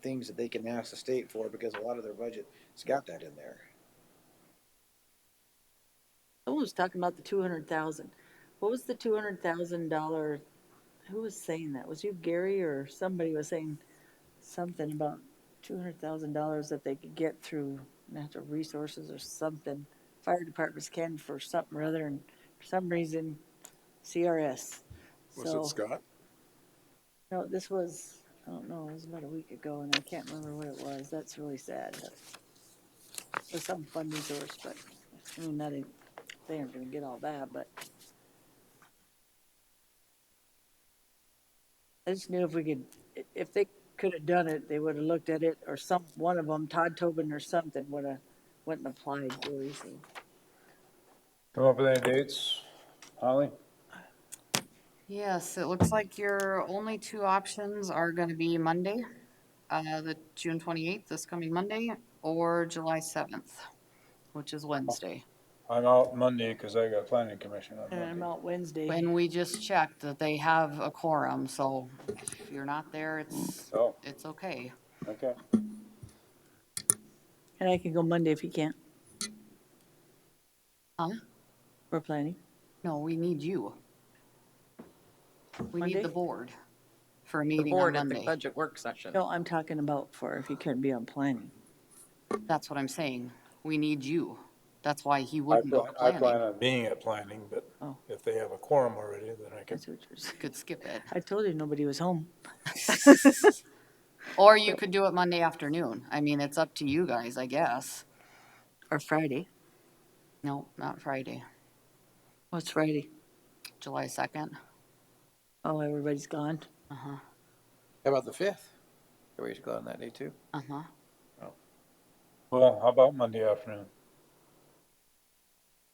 things that they can ask the state for because a lot of their budget has got that in there. Someone was talking about the two hundred thousand. What was the two hundred thousand dollar? Who was saying that? Was you Gary or somebody was saying something about two hundred thousand dollars that they could get through natural resources or something? Fire departments can for something or other, and for some reason, CRS. Was So- it Scott? No, this was, I don't know, it was about a week ago and I can't remember what it was. That's really sad. It was some fun resource, but I mean, that ain't, they aren't gonna get all that, but. I just knew if we could, i- if they could have done it, they would have looked at it or some, one of them, Todd Tobin or something would have, wouldn't applied, Gary, so. Come up with any dates, Holly? Yes, it looks like your only two options are gonna be Monday, uh, the June twenty-eighth, this coming Monday, or July seventh, which is Wednesday. I'm out Monday because I got planning commission on And I'm Monday. out Wednesday. And we just checked that they have a quorum, so if you're not there, it's, Oh, Hmm. it's okay. okay. And I can go Monday if you can't. Huh? We're planning. No, we need you. We Monday? need the board for a the meeting on board at the Monday. budget work session. No, I'm talking about for if you couldn't be on planning. That's what I'm saying. We need you. That's why he I wouldn't go plan, to I plan planning. on being at planning, but Oh. if they have a quorum already, then I can. That's what you're saying. Could skip it. I told you nobody was home. Or you could do it Monday afternoon. I mean, it's up to you guys, I guess. Or Friday. No, not Friday, What's Friday? July second. Oh, everybody's gone. Uh-huh, How about the fifth? Are we go on that day too? uh-huh. Well, how about Monday afternoon?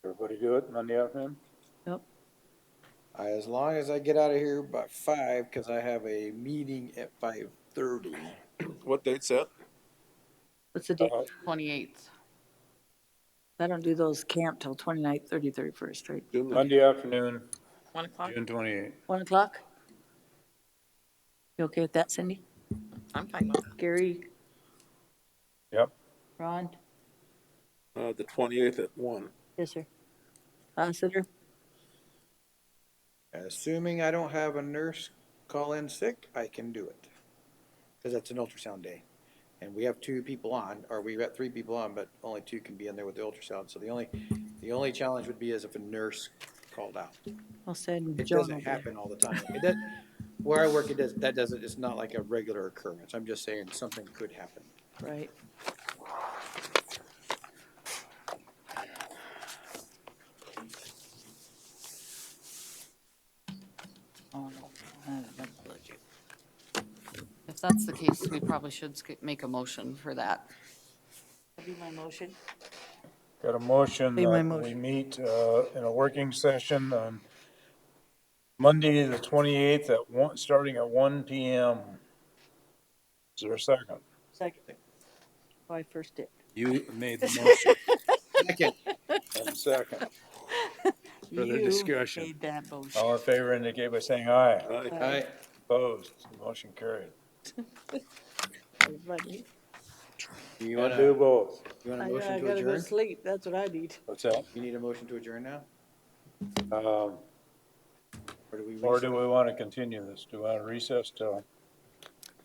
Everybody do it Monday afternoon? Yep. I- As long as I get out of here by five, cause I have a meeting at five thirty. What date set? What's the date? Uh, Twenty-eighth. I don't do those camp till 29th, 30, 31st, right? June the- Monday afternoon, One o'clock? June twenty-eighth. One o'clock? You okay with that, Cindy? I'm fine with that. Gary, Yep, Ron? Uh, the twenty-eighth at one. Yes, sir. Lassiter? Assuming I don't have a nurse call in sick, I can do it. Cause that's an ultrasound day. And we have two people on, or we've got three people on, but only two can be in there with the ultrasound. So the only, the only challenge would be is if a nurse called out. I'll send It John doesn't over there. happen all the time. It does, where I work, it does, that doesn't, it's not like a regular occurrence. I'm just saying something could happen. Right. Oh, no. I haven't done the budget. If that's the case, we probably should sk- make a motion for that. That'd be my motion. got a motion Be my that we motion. meet, uh, in a working session on Monday, the twenty-eighth at one, starting at one P M. Is there a second? Second. Oh, I first did. You made the motion. Second, And second. Further You discussion. Made that motion. All in favor indicate by saying aye. Aye. I, Opposed, motion carried. Everybody. do you And wanna, do you both. want I a know, motion I to gotta go adjourn? sleep, that's what I need. What's that? You need a motion to adjourn now? Um, Or do we? or do we want to continue this? Do we want to recess till?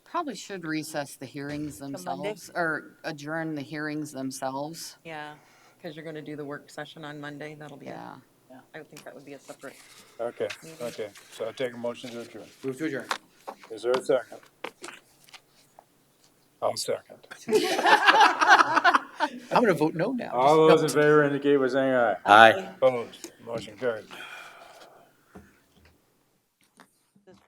Probably should recess the hearings Monday? themselves, or adjourn the hearings themselves. Yeah, because you're gonna do the work session on Monday. That'll be, a- Yeah. I would think that would be a separate. Okay, okay. So I take a motion to adjourn. Move to adjourn. Is there a second? I'll second. I'm gonna vote no now. All those in favor indicate by saying aye. Aye. Opposed, motion carried.